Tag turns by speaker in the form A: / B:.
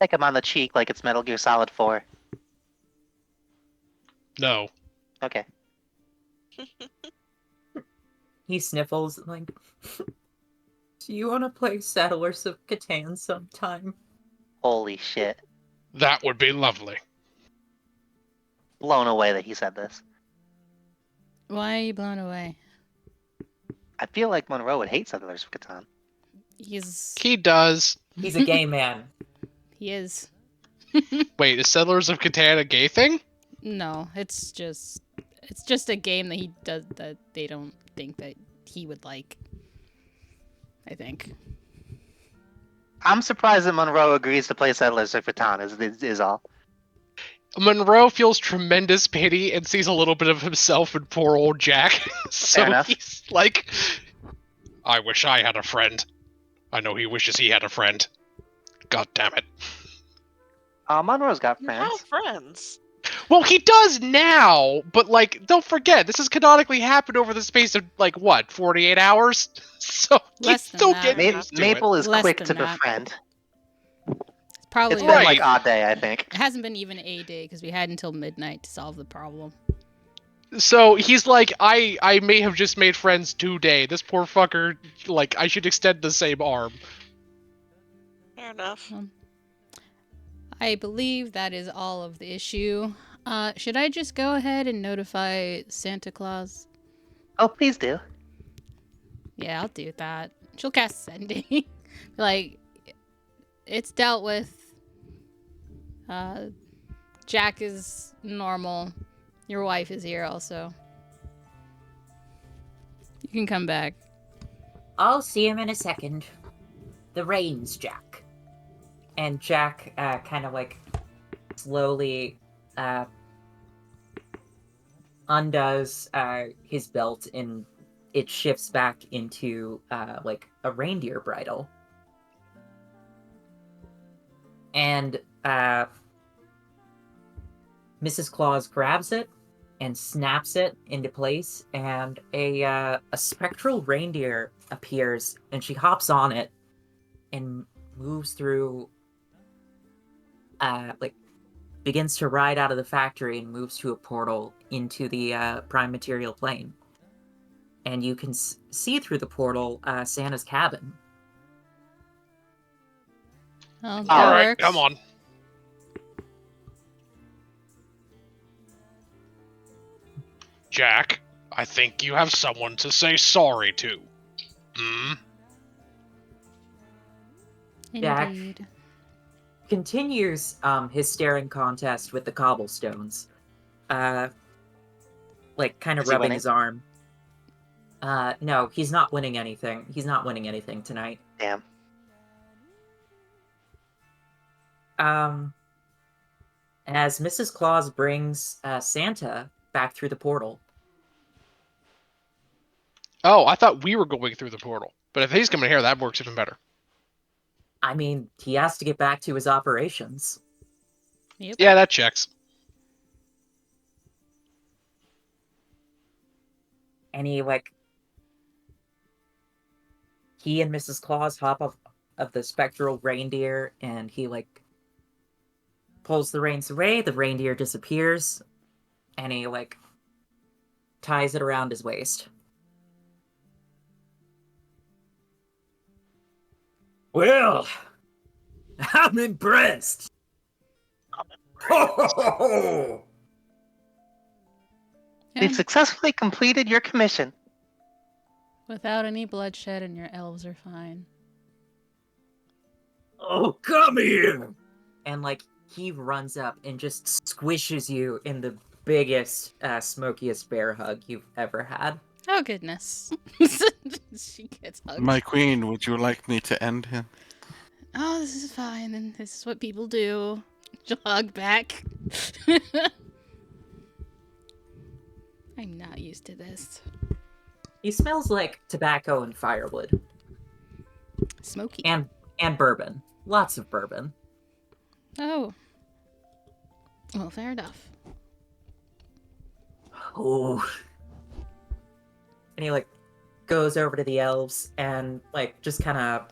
A: Take him on the cheek like it's Metal Gear Solid 4.
B: No.
A: Okay.
C: He sniffles and like, "Do you want to play Settlers of Catan sometime?"
A: Holy shit.
B: That would be lovely.
A: Blown away that he said this.
D: Why are you blown away?
A: I feel like Monroe would hate Settlers of Catan.
D: He's
B: He does.
C: He's a gay man.
D: he is.
B: Wait, is Settlers of Catan a gay thing?
D: No, it's just it's just a game that he does that they don't think that he would like. I think.
A: I'm surprised that Monroe agrees to play Settlers of Catan, is, is, is all.
B: Monroe feels tremendous pity and sees a little bit of himself in poor old Jack.
A: Fair
B: so
A: enough.
B: he's like, I wish I had a friend. I know he wishes he had a friend. God damn it.
A: Uh, Monroe's got
E: You're all
A: friends.
E: friends.
B: Well, he does now, but like, don't forget, this has canonically happened over the space of like what, forty-eight hours? So
D: Less
B: he's
D: than
B: still
D: that.
B: getting
A: Ma-
B: used to it.
A: Maple is
D: Less
A: quick
D: than
A: to
D: that.
A: befriend.
D: It's probably
A: It's been
B: Right.
A: like odd day, I think.
D: it hasn't been even a day because we had until midnight to solve the problem.
B: So he's like, I I may have just made friends today. This poor fucker, like, I should extend the same arm.
E: Fair enough.
D: I believe that is all of the issue. Uh, should I just go ahead and notify Santa Claus?
A: Oh, please do.
D: Yeah, I'll do that. She'll cast sending. like, it's dealt with. Uh, Jack is normal. Your wife is here also. You can come back.
C: I'll see him in a second. The reins, Jack. And Jack uh, kind of like slowly uh, undoes uh, his belt and it shifts back into uh, like a reindeer bridle. And uh, Mrs. Claus grabs it and snaps it into place, and a uh, a spectral reindeer appears, and she hops on it and moves through. Uh, like begins to ride out of the factory and moves to a portal into the uh, prime material plane, and you can s- see through the portal uh, Santa's cabin.
D: Oh, that
A: All
B: All right,
D: works.
B: come on. Jack, I think you have someone to say sorry to. Hmm?
C: Jack.
D: Indeed.
C: continues um, his staring contest with the cobblestones, uh, like kind of
A: Is he
C: rubbing
A: winning?
C: his arm. Uh, no, he's not winning anything. He's not winning anything tonight.
A: Damn.
C: Um, as Mrs. Claus brings uh, Santa back through the portal,
B: Oh, I thought we were going through the portal. But if he's coming here, that works even better.
C: I mean, he has to get back to his operations.
D: Yep.
B: Yeah, that checks.
C: and he like he and Mrs. Claus hop off of the spectral reindeer and he like pulls the reins away, the reindeer disappears, and he like ties it around his waist. Well, I'm impressed. Oh,
D: Yeah.
A: We've successfully completed your commission.
D: Without any bloodshed, and your elves are fine.
C: Oh, come here! And like he runs up and just squishes you in the biggest, uh, smokiest bear hug you've ever had.
D: Oh goodness. she gets hugged.
F: My queen, would you like me to end him?
D: oh, this is fine, and this is what people do. She'll hug back. I'm not used to this.
C: He smells like tobacco and firewood
D: Smoky.
C: and and bourbon. Lots of bourbon.
D: Oh. Well, fair enough.
C: Oh. And he like goes over to the elves and like just kind of